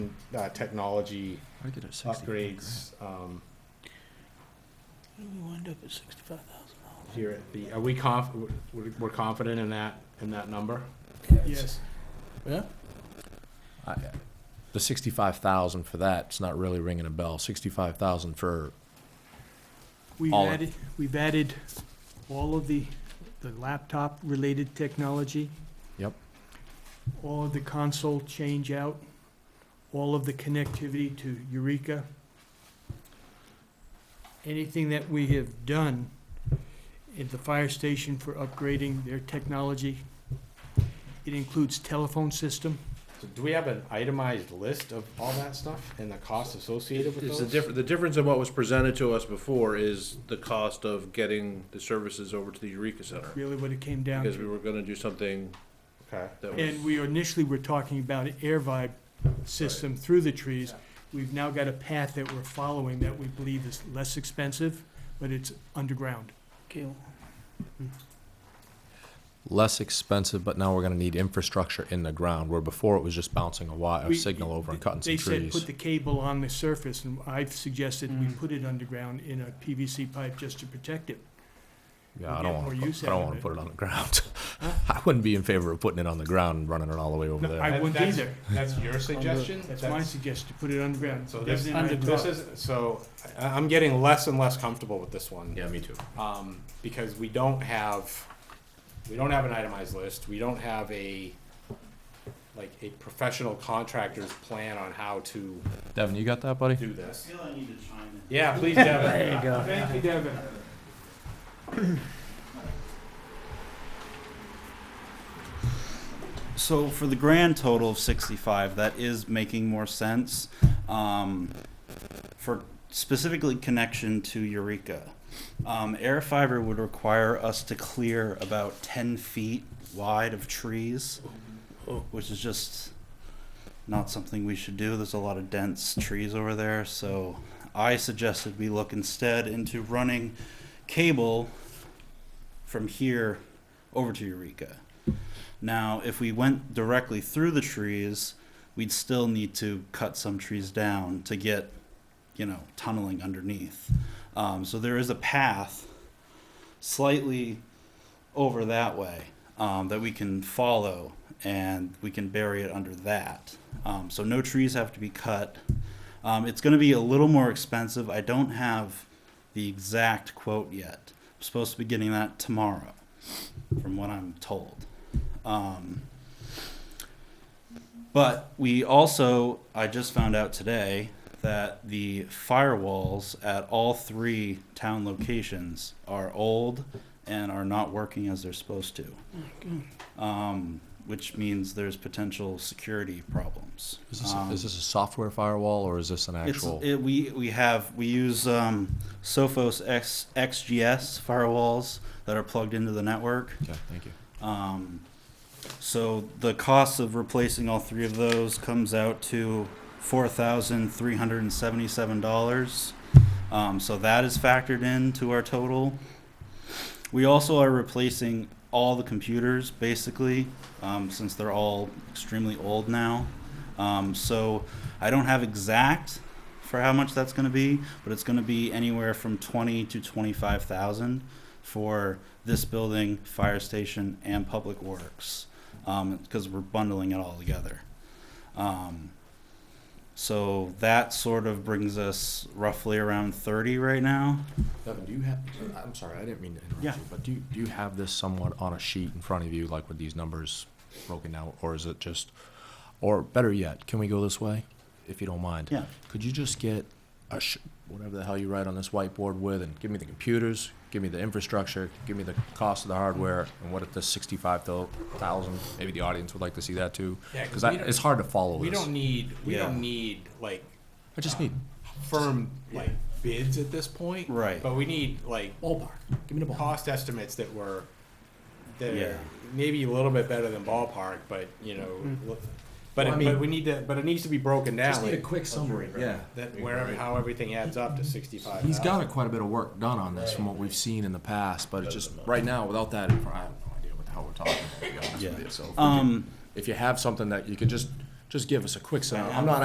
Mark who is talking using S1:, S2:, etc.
S1: uh, technology
S2: I get it. 65 grand.
S1: upgrades um,
S3: We wind up at sixty-five thousand
S1: here at the, are we conf, we're, we're confident in that, in that number?
S3: dollars. Yes. Yeah?
S4: I- The sixty-five thousand for that's not really ringing a bell. Sixty-five thousand for,
S5: We've
S4: All of-
S5: added, we've added all of the, the laptop-related technology.
S4: Yep.
S5: All of the console change-out, all of the connectivity to Eureka. Anything that we have done at the fire station for upgrading their technology. It includes telephone system.
S1: So Do we have an itemized list of all that stuff and the costs associated with
S6: It's the
S1: those?
S6: difference, the difference in what was presented to us before is the cost of getting the services over to the Eureka Center.
S5: really what it came down
S6: Because we
S5: to.
S6: were gonna do something
S1: Okay,
S6: that
S5: And
S6: was,
S5: we initially were talking about an air vibe system through the trees.
S1: Yeah.
S5: We've now got a path that we're following that we believe is less expensive, but it's underground.
S3: Kill.
S4: less expensive, but now we're gonna need infrastructure in the ground, where before it was just bouncing a wire, a
S5: We-
S4: signal over and cutting some
S5: They said put
S4: trees.
S5: the cable on the surface, and I've suggested we
S3: Mm.
S5: put it underground in a PVC pipe just to protect it.
S4: Yeah, I
S5: get
S4: don't
S5: more
S4: wanna,
S5: use
S4: put- I
S5: out
S4: don't
S5: of
S4: wanna
S5: it.
S4: put it on the ground. I wouldn't be in favor of putting it on the ground and running it all the way over
S5: No,
S4: there.
S5: I
S1: That-
S5: wouldn't
S1: that's-
S5: either.
S1: that's your suggestion?
S5: That's my suggestion, to put it underground.
S1: So this,
S5: Definitely not
S1: this is, so I, I'm getting less and less comfortable with this one.
S4: me too.
S1: um, because we don't have, we don't have an itemized list, we don't have a, like, a professional contractor's plan on how to
S4: Devin, you got that, buddy?
S1: do this. I feel I need to chime in. Yeah, please, Devin.
S3: you go.
S5: Thank you, Devin.
S7: So for the grand total of 65, that is making more sense. Um, for specifically connection to Eureka, um, air fiber would require us to clear about 10 feet wide of trees, which is just not something we should do. There's a lot of dense trees over there, so I suggested we look instead into running cable from here over to Eureka. Now, if we went directly through the trees, we'd still need to cut some trees down to get, you know, tunneling underneath. Um, so there is a path slightly over that way um, that we can follow and we can bury it under that. Um, so no trees have to be cut. Um, it's going to be a little more expensive. I don't have the exact quote yet. I'm supposed to be getting that tomorrow, from what I'm told. Um, but we also, I just found out today that the firewalls at all three town locations are old and are not working as they're supposed to, um, which means there's potential security problems.
S4: Is this,
S7: Um,
S4: is this a software firewall, or is this an
S7: it's,
S4: actual?
S7: it, we we have we use um, Sophos X, XGS firewalls that are plugged into the network.
S4: Okay, thank you.
S7: Um, so the cost of replacing all three of those comes out to four thousand three hundred and seventy-seven dollars. Um, so that is factored into our total. We also are replacing all the computers basically, um, since they're all extremely old now. Um, so I don't have exact for how much that's going to be, but it's going to be anywhere from twenty to twenty-five thousand for this building, fire station, and public works, because we're bundling it all together. Um, so that sort of brings us roughly around 30 right now.
S4: Devin, do you have, I'm sorry, I didn't mean to interrupt
S7: Yeah.
S4: you, but do you, do you have this somewhat on a sheet in front of you, like with these numbers broken out, or is it just, or better yet, can we go this way, if you don't mind?
S7: Yeah.
S4: Could you just get a, sh- whatever the hell you write on this whiteboard with, and give me the computers, give me the infrastructure, give me the cost of the hardware, and what if the sixty-five thousand, maybe the audience would like to see that too?
S1: Yeah, 'cause
S4: Because I,
S1: we don't-
S4: it's hard to follow this.
S1: We don't need, we
S7: Yeah.
S1: don't need, like,
S4: I just need,
S1: firm, like, bids at this point.
S7: Right.
S1: But we need, like,
S4: ballpark, give me the ballpark.
S1: cost estimates that were, that
S7: Yeah.
S1: are maybe a little bit better than ballpark, but, you know, look- but,
S4: Mm. Well, I
S1: it-
S4: mean-
S1: but we need to, but it needs to be broken down.
S4: Just need a
S1: like-
S4: quick summary, yeah.
S1: That wherever, how everything adds up to sixty-five
S4: He's
S1: thousand.
S4: got quite a bit of work done on this from what we've seen in the past, but it's just, right now, without that, I have no idea what the hell we're talking about, to be honest with
S7: Yeah.
S4: you. So if we can-
S7: Um,
S4: If you have something that you can just, just give us a quick, sum- I'm not